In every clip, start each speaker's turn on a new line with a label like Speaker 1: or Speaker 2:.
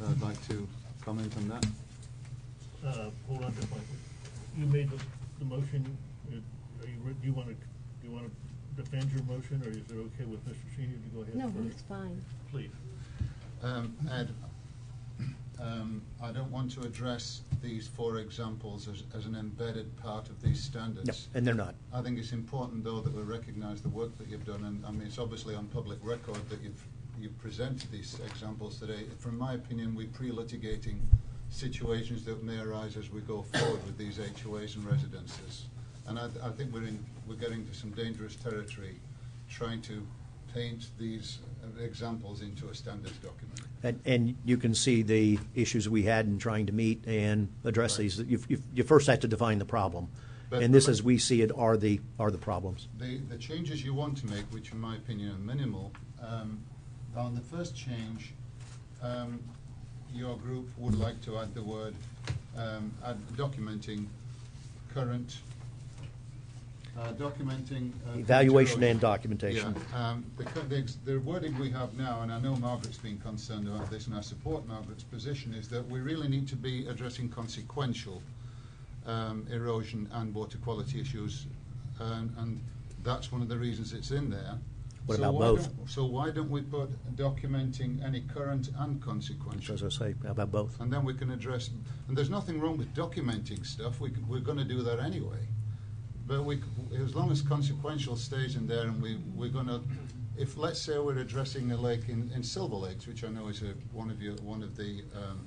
Speaker 1: that I'd like to comment on that?
Speaker 2: Uh, hold on just a minute. You made the, the motion, Uh, are you, re- do you wanna, do you wanna defend your motion, or is it okay with Mr. Senior to go ahead
Speaker 3: No,
Speaker 2: first?
Speaker 3: it's fine.
Speaker 2: Please.
Speaker 4: Um, Ed, um, I don't want to address these four examples as, as an embedded part of these
Speaker 5: No,
Speaker 4: standards.
Speaker 5: and they're not.
Speaker 4: I think it's important, though, that we recognise the work that you've done, and I mean, it's obviously on public record that you've you've presented these examples today. From my opinion, we're pre-litigating situations that may arise as we go forward with these HOAs and residences, and I, I think we're in we're getting to some dangerous territory, trying to paint these uh, examples into a standards document.
Speaker 5: And, and you can see the issues we had in trying to meet and address
Speaker 4: Right.
Speaker 5: these. You, you, you first have to define the problem.
Speaker 4: But-
Speaker 5: And this,
Speaker 4: but-
Speaker 5: as we see it, are the, are the problems.
Speaker 4: the, the changes you want to make, which in my opinion are minimal, um, on the first change, um, your group would like to add the word um, add documenting current. Uh, documenting. Uh, current
Speaker 5: Evaluation
Speaker 4: erosion.
Speaker 5: and documentation.
Speaker 4: Yeah, um, the, cu- the, ex- the wording we have now, and I know Margaret's been concerned about this, and I support Margaret's position, is that we really need to be addressing consequential um, erosion and water quality issues, and, and that's one of the reasons it's in there.
Speaker 5: What
Speaker 4: so
Speaker 5: about
Speaker 4: why
Speaker 5: both?
Speaker 4: don't- So why don't we put documenting any current and
Speaker 5: So
Speaker 4: consequential?
Speaker 5: As I say, about both.
Speaker 4: And then we can address, and there's nothing wrong with documenting stuff, we, c- we're gonna do that anyway. But we, c- as long as consequential stays in there and we, we're gonna, if, let's say we're addressing a lake in, in Silver Lakes, which I know is a, one of your, one of the, um,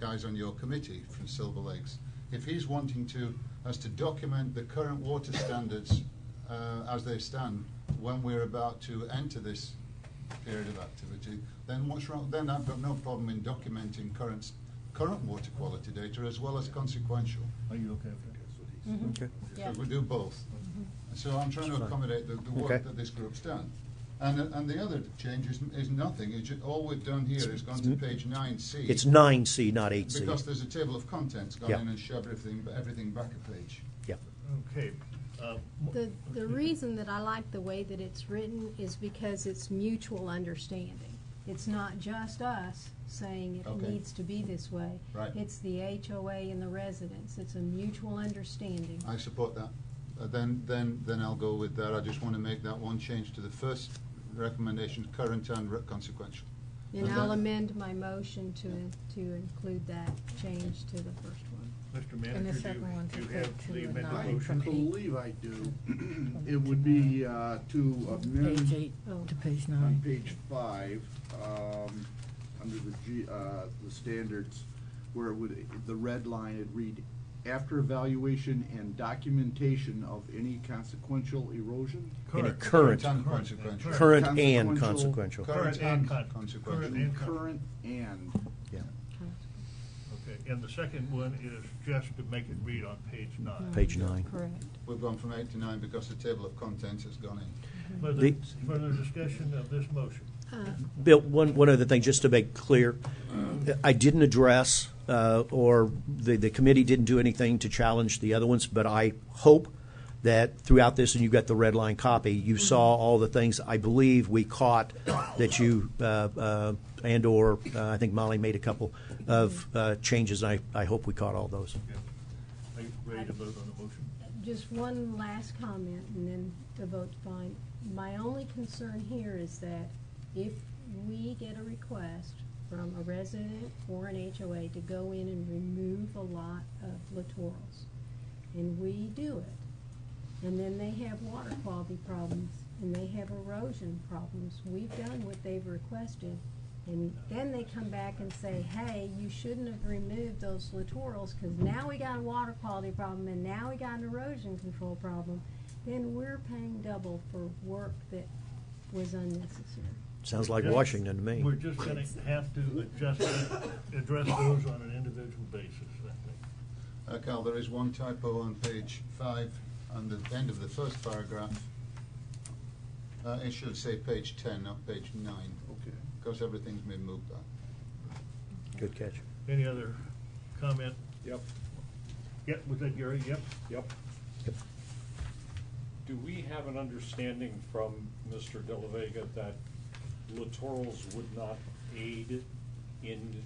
Speaker 4: guys on your committee from Silver Lakes. If he's wanting to, us to document the current water standards, uh, as they stand, when we're about to enter this period of activity, then what's wrong, then I've got no problem in documenting current, current water quality data as well as consequential.
Speaker 2: Are you okay with that?
Speaker 5: Okay.
Speaker 3: Yeah.
Speaker 4: So we do both. So I'm trying to
Speaker 5: That's fine.
Speaker 4: accommodate the, the work
Speaker 5: Okay.
Speaker 4: that this group's done. And, uh, and the other change is, is nothing, it's, ju- all we've done here is gone to page nine C.
Speaker 5: It's nine C, not eight C.
Speaker 4: Because there's a table of contents, gone
Speaker 5: Yeah.
Speaker 4: in and shoved everything, everything back a page.
Speaker 5: Yeah.
Speaker 2: Okay. uh, mo-
Speaker 3: The, the
Speaker 2: okay.
Speaker 3: reason that I like the way that it's written is because it's mutual understanding. It's not just us saying it
Speaker 4: Okay.
Speaker 3: needs to be this way.
Speaker 4: Right.
Speaker 3: It's the HOA and the residents. It's a mutual understanding.
Speaker 4: I support that. Uh, Then, then, then I'll go with that. I just want to make that one change to the first recommendation, current and re- consequential.
Speaker 3: And
Speaker 4: And
Speaker 3: I'll
Speaker 4: that-
Speaker 3: amend my motion to, to include that change to the first one.
Speaker 2: Mr.
Speaker 6: And the
Speaker 2: Manager,
Speaker 6: second one's
Speaker 2: do you, do you
Speaker 6: referred
Speaker 2: have
Speaker 6: to
Speaker 2: the
Speaker 6: a
Speaker 2: amended
Speaker 6: nine
Speaker 7: I
Speaker 6: from
Speaker 2: motion?
Speaker 6: eight.
Speaker 7: believe I do. It would be uh, to
Speaker 6: Page
Speaker 7: amend
Speaker 6: eight
Speaker 3: Oh.
Speaker 6: to page
Speaker 7: on
Speaker 6: nine.
Speaker 7: page five, um, under the G, uh, the standards, where it would, the red line, it'd read, after evaluation and documentation of any consequential erosion?
Speaker 5: And a
Speaker 4: Current
Speaker 5: current,
Speaker 4: and consequential.
Speaker 5: current and consequential.
Speaker 7: Consequential-
Speaker 2: Current and con-
Speaker 4: consequential.
Speaker 2: current and con-
Speaker 7: Current and,
Speaker 5: Yeah.
Speaker 2: Okay, and the second one is just to make it read on page nine.
Speaker 5: Page nine.
Speaker 6: Correct.
Speaker 4: We've gone from eight to nine because the table of contents has gone in.
Speaker 2: Further,
Speaker 5: The-
Speaker 2: further discussion of this motion.
Speaker 5: Bill, one, one other thing, just to make clear, I didn't address, uh, or the, the committee didn't do anything to challenge the other ones, but I hope that throughout this, and you got the red line copy, you saw all the things I believe we caught that you, uh, uh, and/or, uh, I think Molly made a couple of uh, changes, and I, I hope we caught all those.
Speaker 2: Yeah. Are you ready to vote on the motion?
Speaker 3: Just one last comment and then the vote's fine. My only concern here is that if we get a request from a resident or an HOA to go in and remove a lot of littorals, and we do it, and then they have water quality problems, and they have erosion problems, we've done what they've requested, and then they come back and say, hey, you shouldn't have removed those littorals, because now we got a water quality problem, and now we got an erosion control problem, then we're paying double for work that was unnecessary.
Speaker 5: Sounds like
Speaker 2: Just-
Speaker 5: Washington to me.
Speaker 2: We're just gonna have to adjust, address those on an individual basis, I think.
Speaker 4: Uh, Cal, there is one typo on page five, on the end of the first paragraph. Uh, It should say page ten, not page nine,
Speaker 7: okay.
Speaker 4: because everything's been moved back.
Speaker 5: Good catch.
Speaker 2: Any other comment?
Speaker 7: Yep,
Speaker 2: Yep, was that Gary? Yep.
Speaker 7: yep.
Speaker 8: Do we have an understanding from Mr. De La Vega that littorals would not aid in